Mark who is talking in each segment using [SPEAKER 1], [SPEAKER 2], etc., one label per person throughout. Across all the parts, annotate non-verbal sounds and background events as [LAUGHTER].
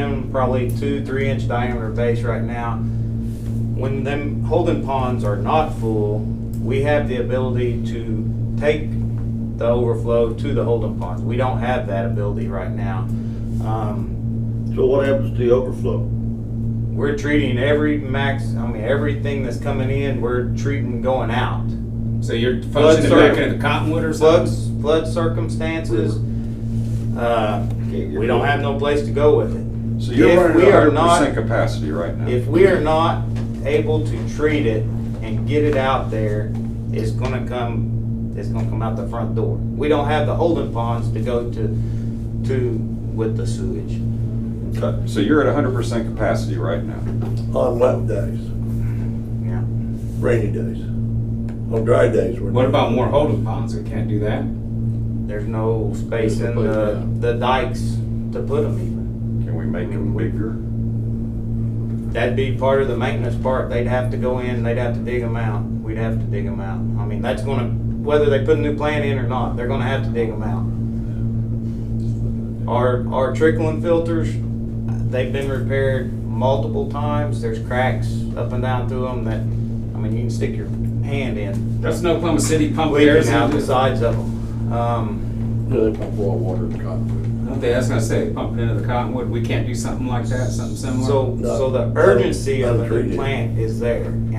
[SPEAKER 1] in probably two, three inch diameter bass right now. When them holding ponds are not full, we have the ability to take the overflow to the holding ponds. We don't have that ability right now. Um,
[SPEAKER 2] So what happens to the overflow?
[SPEAKER 1] we're treating every max, I mean, everything that's coming in, we're treating going out.
[SPEAKER 3] So you're
[SPEAKER 1] Flood
[SPEAKER 3] functioning back
[SPEAKER 1] circuit.
[SPEAKER 3] into Cottonwood or something?
[SPEAKER 1] Floods, flood circumstances, uh, we don't have no place to go with it.
[SPEAKER 4] So you're
[SPEAKER 1] If
[SPEAKER 4] running
[SPEAKER 1] we
[SPEAKER 4] at
[SPEAKER 1] are
[SPEAKER 4] hundred
[SPEAKER 1] not-
[SPEAKER 4] percent capacity right now.
[SPEAKER 1] If we are not able to treat it and get it out there, it's gonna come, it's gonna come out the front door. We don't have the holding ponds to go to, to with the sewage.
[SPEAKER 4] Okay, So you're at hundred percent capacity right now.
[SPEAKER 2] On wet days,
[SPEAKER 1] Yeah.
[SPEAKER 2] rainy days, on dry days. we're-
[SPEAKER 3] What about more holding ponds? We can't do that?
[SPEAKER 1] There's no space
[SPEAKER 5] There's no
[SPEAKER 1] in
[SPEAKER 5] place,
[SPEAKER 1] the, the dikes to put them even.
[SPEAKER 4] Can we make them bigger?
[SPEAKER 1] That'd be part of the maintenance part. They'd have to go in, they'd have to dig them out. We'd have to dig them out. I mean, that's gonna, whether they put a new plant in or not, they're gonna have to dig them out. Our, our trickling filters, they've been repaired multiple times. There's cracks up and down through them that, I mean, you can stick your hand in.
[SPEAKER 3] That's no Oklahoma City pump
[SPEAKER 1] Leaking
[SPEAKER 3] theirs
[SPEAKER 1] out
[SPEAKER 3] out.
[SPEAKER 1] the
[SPEAKER 3] Don't
[SPEAKER 1] sides of them. Um,
[SPEAKER 5] Yeah, they pump raw water in Cottonwood.
[SPEAKER 3] they, that's gonna say pump it into the Cottonwood. We can't do something like that, something similar?
[SPEAKER 1] So,
[SPEAKER 2] No.
[SPEAKER 1] so the urgency of a new
[SPEAKER 2] Untreated.
[SPEAKER 1] plant is there, and, I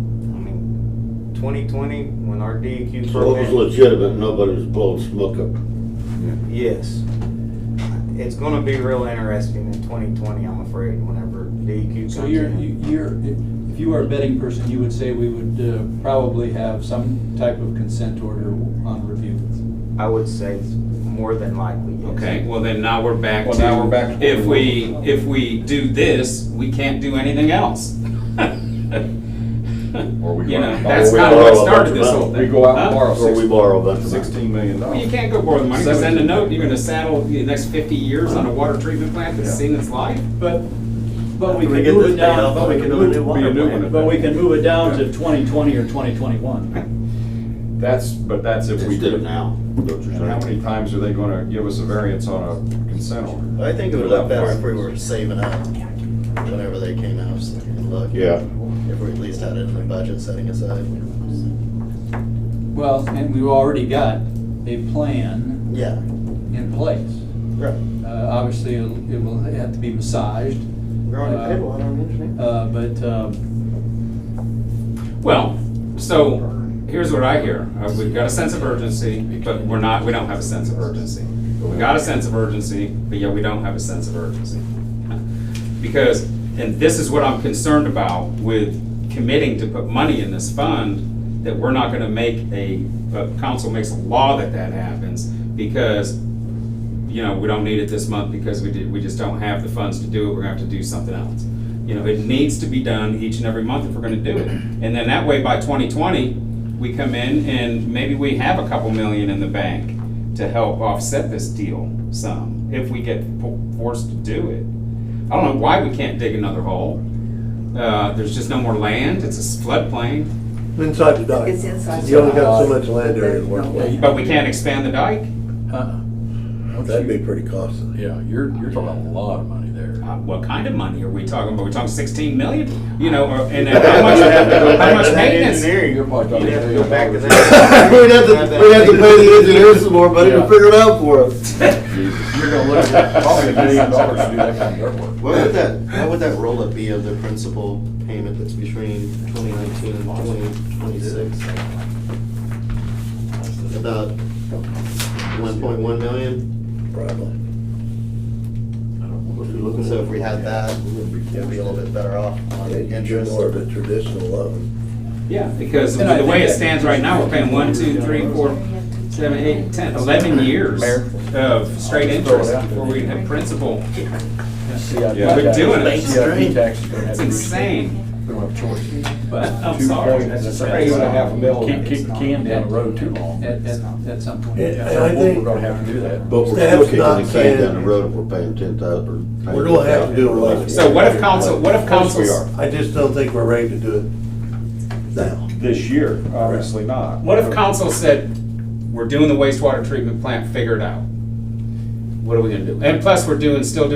[SPEAKER 1] mean, twenty twenty, when our DEQ.
[SPEAKER 6] So it was
[SPEAKER 1] program-
[SPEAKER 6] legitimate, nobody was blowing smoke up.
[SPEAKER 1] Yes. It's gonna be real interesting in twenty twenty, I'm afraid, whenever DEQ
[SPEAKER 5] So
[SPEAKER 1] comes
[SPEAKER 5] you're,
[SPEAKER 1] in.
[SPEAKER 5] you- you're, if if you were a betting person, you would say we would uh, probably have some type of consent order on review.
[SPEAKER 1] I would say it's more than likely, yes.
[SPEAKER 3] Okay, well then now we're back
[SPEAKER 4] Well,
[SPEAKER 3] to.
[SPEAKER 4] now we're back to-
[SPEAKER 3] If we, if we do this, we can't do anything else. [LAUGHS]
[SPEAKER 4] Or we
[SPEAKER 3] You
[SPEAKER 4] run-
[SPEAKER 3] know,
[SPEAKER 4] or
[SPEAKER 3] that's
[SPEAKER 4] we
[SPEAKER 3] kind of
[SPEAKER 6] borrow a
[SPEAKER 3] what
[SPEAKER 6] bunch
[SPEAKER 3] started
[SPEAKER 6] of
[SPEAKER 3] this
[SPEAKER 6] money.
[SPEAKER 3] whole thing.
[SPEAKER 4] We go out and
[SPEAKER 3] Huh?
[SPEAKER 4] borrow
[SPEAKER 6] Or we
[SPEAKER 4] sixteen
[SPEAKER 6] borrow a bunch of money.
[SPEAKER 4] sixteen million
[SPEAKER 3] Well, you
[SPEAKER 4] dollars.
[SPEAKER 3] can't go borrow the money, because then the note, you're gonna saddle the next fifty years on a water treatment plant that's
[SPEAKER 4] Yeah.
[SPEAKER 3] seen its life.
[SPEAKER 5] But, but we
[SPEAKER 2] After we
[SPEAKER 5] can
[SPEAKER 2] get
[SPEAKER 5] move
[SPEAKER 2] this
[SPEAKER 5] it
[SPEAKER 2] paid off,
[SPEAKER 5] down, but we
[SPEAKER 2] we
[SPEAKER 5] can
[SPEAKER 2] can do a new
[SPEAKER 5] move,
[SPEAKER 2] one.
[SPEAKER 4] Be a new one.
[SPEAKER 5] but we can move it down to 2020 or 2021.
[SPEAKER 4] That's, but that's if we.
[SPEAKER 6] Just do it now. don't you
[SPEAKER 4] And how
[SPEAKER 6] think?
[SPEAKER 4] many times are they gonna give us a variance on a consent order?
[SPEAKER 7] I think it would look better if we were saving up whenever they came out, so we could look.
[SPEAKER 6] Yeah.
[SPEAKER 7] If we at least had it in the budget setting aside.
[SPEAKER 5] Well, and we've already got a plan
[SPEAKER 7] Yeah,
[SPEAKER 5] in place.
[SPEAKER 7] right.
[SPEAKER 5] Uh, Obviously, it'll- it will have to be massaged,
[SPEAKER 7] We're on the
[SPEAKER 5] Uh,
[SPEAKER 7] table, I don't understand.
[SPEAKER 5] uh, but um,
[SPEAKER 3] Well, so here's what I hear. Uh, We've got a sense of urgency, but we're not, we don't have a sense of urgency. We got a sense of urgency, but yet we don't have a sense of urgency. Because, and this is what I'm concerned about with committing to put money in this fund, that we're not gonna make a, uh, council makes a law that that happens because, you know, we don't need it this month because we did, we just don't have the funds to do it, we're gonna have to do something else. You know, it needs to be done each and every month if we're gonna do it. And then that way, by twenty twenty, we come in and maybe we have a couple million in the bank to help offset this deal some, if we get po- forced to do it. I don't know why we can't dig another hole. Uh, there's just no more land, it's a floodplain,
[SPEAKER 2] Inside the dock.
[SPEAKER 8] It's inside
[SPEAKER 2] You only got so
[SPEAKER 5] the dock.
[SPEAKER 2] much land area to work with.
[SPEAKER 3] but we can't expand the dike.
[SPEAKER 5] uh-uh. Don't
[SPEAKER 2] That'd
[SPEAKER 5] you-
[SPEAKER 2] be pretty costly. [LAUGHS]
[SPEAKER 5] Yeah, you're, you're talking a lot of money there.
[SPEAKER 3] Uh, What kind of money are we talking about? We're talking sixteen million, you know, or- and then how much, how much maintenance?
[SPEAKER 5] You're probably talking
[SPEAKER 1] You'd have to
[SPEAKER 5] three
[SPEAKER 1] go back to
[SPEAKER 5] hundred
[SPEAKER 6] [LAUGHS]
[SPEAKER 1] that.
[SPEAKER 6] We'd have to, we'd have to pay the engineers some more money to
[SPEAKER 4] Yeah.
[SPEAKER 6] figure it out for us.
[SPEAKER 4] [LAUGHS] You're gonna look at probably a million dollars to do that kind of dirt work.
[SPEAKER 7] What would that, what would that roll-up be of the principal payment that's between 2019 and 2026? About 1.1 million?
[SPEAKER 2] Probably.
[SPEAKER 7] So if we had that, we'd be a little bit better off on
[SPEAKER 2] And you're
[SPEAKER 7] interest.
[SPEAKER 2] more of a traditional loan.
[SPEAKER 3] Yeah, because
[SPEAKER 5] And I
[SPEAKER 3] the way
[SPEAKER 5] think
[SPEAKER 3] it
[SPEAKER 5] that-
[SPEAKER 3] stands right now, we're paying one, two, three, four, seven, eight, ten, eleven years of straight interest before we have principal.
[SPEAKER 4] Yeah.
[SPEAKER 3] We're doing it.
[SPEAKER 4] CIP tax is gonna have
[SPEAKER 3] It's
[SPEAKER 4] to be-
[SPEAKER 3] insane,
[SPEAKER 4] We don't have a choice.
[SPEAKER 3] but I'm
[SPEAKER 4] Two
[SPEAKER 3] sorry,
[SPEAKER 4] point-
[SPEAKER 3] that's just
[SPEAKER 4] that's
[SPEAKER 3] crazy.
[SPEAKER 4] two and a half mil.
[SPEAKER 3] Can't
[SPEAKER 4] kick the can down the road too long.
[SPEAKER 5] At, at, at some point.
[SPEAKER 2] And-
[SPEAKER 5] yeah.
[SPEAKER 2] and I
[SPEAKER 4] We're
[SPEAKER 2] think,
[SPEAKER 4] gonna have to do that.
[SPEAKER 6] But we're
[SPEAKER 2] That's
[SPEAKER 6] still kicking
[SPEAKER 2] not
[SPEAKER 6] the can down
[SPEAKER 2] fair.
[SPEAKER 6] the road if we're paying ten thousand.
[SPEAKER 2] We're gonna have to do a lot.
[SPEAKER 3] So what if council, what if council?
[SPEAKER 6] we are.
[SPEAKER 2] I just don't think we're ready to do it now.
[SPEAKER 4] This year, obviously not.
[SPEAKER 3] What if council said, we're doing the wastewater treatment plant, figure it out? What are we gonna do? And plus, we're doing, still doing